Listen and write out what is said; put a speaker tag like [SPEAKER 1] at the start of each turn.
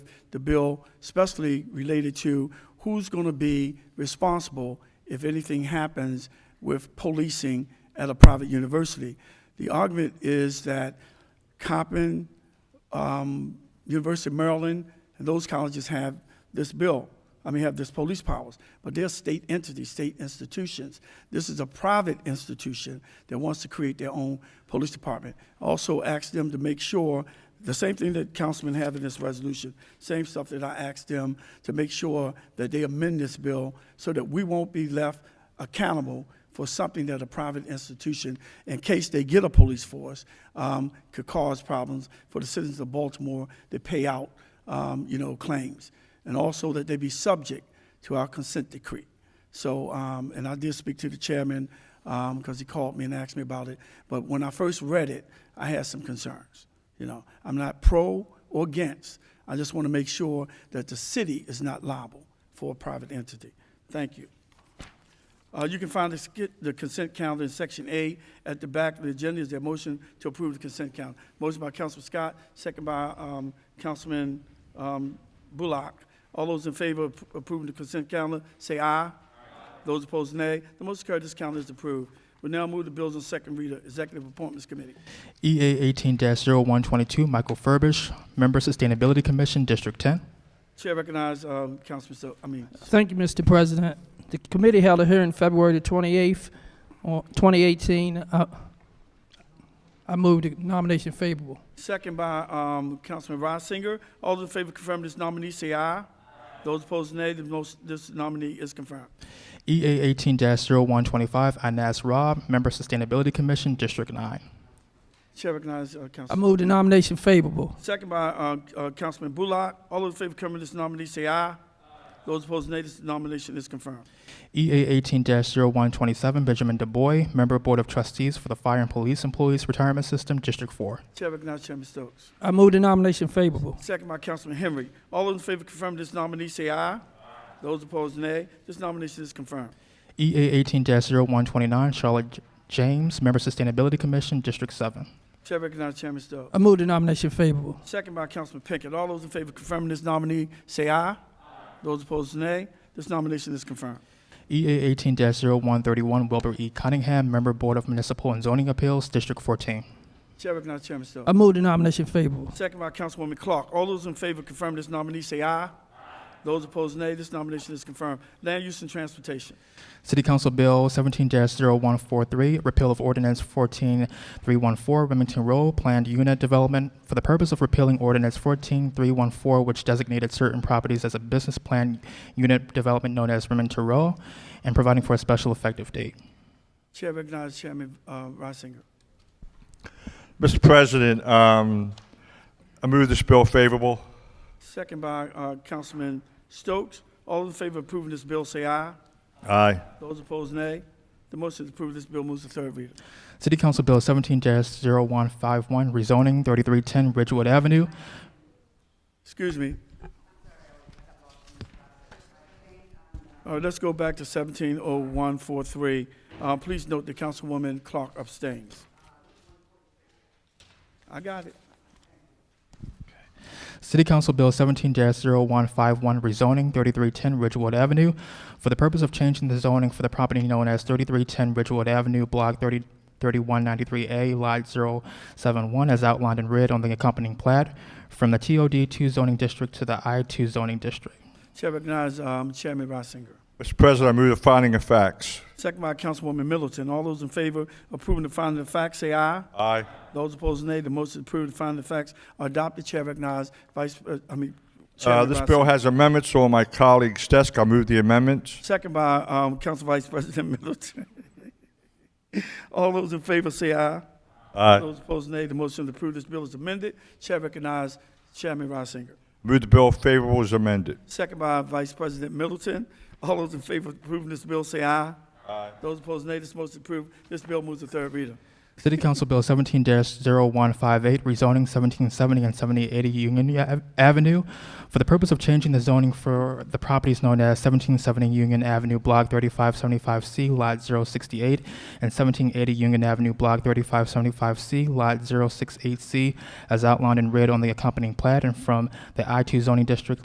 [SPEAKER 1] the bill, especially related to who's going to be responsible if anything happens with policing at a private university. The argument is that Coppin, um, University of Maryland, and those colleges have this bill. I mean, have this police powers, but they're state entities, state institutions. This is a private institution that wants to create their own police department. Also, ask them to make sure the same thing that councilmen have in this resolution, same stuff that I asked them to make sure that they amend this bill so that we won't be left accountable for something that a private institution, in case they get a police force, um, could cause problems for the citizens of Baltimore that pay out, um, you know, claims. And also that they be subject to our consent decree. So, um, and I did speak to the chairman, um, because he called me and asked me about it. But when I first read it, I had some concerns. You know, I'm not pro or against. I just want to make sure that the city is not liable for a private entity. Thank you. Uh, You can find the sk- the consent calendar in Section A at the back of the agenda. Is there a motion to approve the consent calendar? Motion by Councilman Scott, second by um, Councilman um, Bullock. All those in favor of approving the consent calendar, say aye. Those opposed, nay. The motion carried, this calendar is approved. We now move to bills on second reader, Executive Appointments Committee.
[SPEAKER 2] EA E eighteen 122 Michael Furbish, Member Sustainability Commission, District ten.
[SPEAKER 1] Chair recognized, um, Councilman, So- I mean,
[SPEAKER 3] Thank you, Mr. President. The committee held a hearing February the 28th, on 2018. Uh, I move the nomination favorable.
[SPEAKER 1] Second by um, Councilman Reisinger. All those in favor of confirming this nominee, say aye. Those opposed, nay. The most, this nominee is confirmed.
[SPEAKER 2] EA E eighteen 125 Anas Rob, Member Sustainability Commission, District nine.
[SPEAKER 1] Chair recognizes uh,
[SPEAKER 3] I
[SPEAKER 1] Councilman.
[SPEAKER 3] move the nomination favorable.
[SPEAKER 1] Second by uh, uh, Councilman Bullock. All those in favor of confirming this nominee, say aye. Those opposed, nay. This nomination is confirmed.
[SPEAKER 2] EA E eighteen 127 Benjamin DuBois, Member Board of Trustees for the Fire and Police Employees Retirement System, District four.
[SPEAKER 1] Chair recognizes Chairman Stokes.
[SPEAKER 3] I move the nomination favorable.
[SPEAKER 1] Second by Councilman Henry. All those in favor of confirming this nominee, say aye. Those opposed, nay. This nomination is confirmed.
[SPEAKER 2] EA E eighteen 129 Charlotte J- James, Member Sustainability Commission, District seven.
[SPEAKER 1] Chair recognizes Chairman Stokes.
[SPEAKER 3] I move the nomination favorable.
[SPEAKER 1] Second by Councilman Pinkett. All those in favor of confirming this nominee, say aye. Those opposed, nay. This nomination is confirmed.
[SPEAKER 2] EA E eighteen 131 Wilbur E. Cunningham, Member Board of Municipal and Zoning Appeals, District fourteen.
[SPEAKER 1] Chair recognizes Chairman Stokes.
[SPEAKER 3] I move the nomination favorable.
[SPEAKER 1] Second by Councilwoman Clark. All those in favor confirm this nominee, say aye. Those opposed, nay. This nomination is confirmed. Land use and transportation.
[SPEAKER 2] City Council Bill 17-0143, repeal of ordinance 14314, Remington Road, planned unit development for the purpose of repealing ordinance 14314, which designated certain properties as a business plan unit development known as Remington Road, and providing for a special effective date.
[SPEAKER 1] Chair recognizes Chairman uh, Reisinger.
[SPEAKER 4] Mr. President, um, I move this bill favorable.
[SPEAKER 1] Second by uh, Councilman Stokes. All in favor of approving this bill, say aye.
[SPEAKER 4] Aye.
[SPEAKER 1] Those opposed, nay. The motion to approve this bill moves to third reader.
[SPEAKER 2] City Council Bill 17-0151, rezoning 3310 Ridgewood Avenue.
[SPEAKER 1] Excuse me. All right, Uh, let's go back to 170143. Uh, Please note that Councilwoman Clark abstains. I got it.
[SPEAKER 2] City Council Bill 17-0151, rezoning 3310 Ridgewood Avenue for the purpose of changing the zoning for the property known as 3310 Ridgewood Avenue, Block 30 3193A, Lot 071, as outlined in red on the accompanying plat, from the TOD2 zoning district to the I2 zoning district.
[SPEAKER 1] Chair recognizes um, Chairman Reisinger.
[SPEAKER 4] Mr. President, I move the finding of facts.
[SPEAKER 1] Second by Councilwoman Middleton. All those in favor approving the finding of facts, say aye.
[SPEAKER 4] Aye.
[SPEAKER 1] Those opposed, nay. The motion to approve the finding of facts are adopted. Chair recognizes Vice, uh, I mean,
[SPEAKER 4] Uh,
[SPEAKER 1] Chairman
[SPEAKER 4] this
[SPEAKER 1] Reisinger.
[SPEAKER 4] bill has amendments, so on my colleague's desk, I move the amendments.
[SPEAKER 1] Second by um, Council Vice President Middleton. All those in favor, say aye.
[SPEAKER 4] Aye.
[SPEAKER 1] Those opposed, nay. The motion to approve this bill is amended. Chair recognizes Chairman Reisinger.
[SPEAKER 4] Move the bill favorable as amended.
[SPEAKER 1] Second by Vice President Middleton. All those in favor of approving this bill, say aye.
[SPEAKER 4] Aye.
[SPEAKER 1] Those opposed, nay. This motion is approved. This bill moves to third reader.
[SPEAKER 2] City Council Bill 17-0158, rezoning 1770 and 7080 Union Ave- Avenue for the purpose of changing the zoning for the properties known as 1770 Union Avenue, Block 3575C, Lot 068, and 1780 Union Avenue, Block 3575C, Lot 068C, as outlined in red on the accompanying plat, and from the I-2 zoning district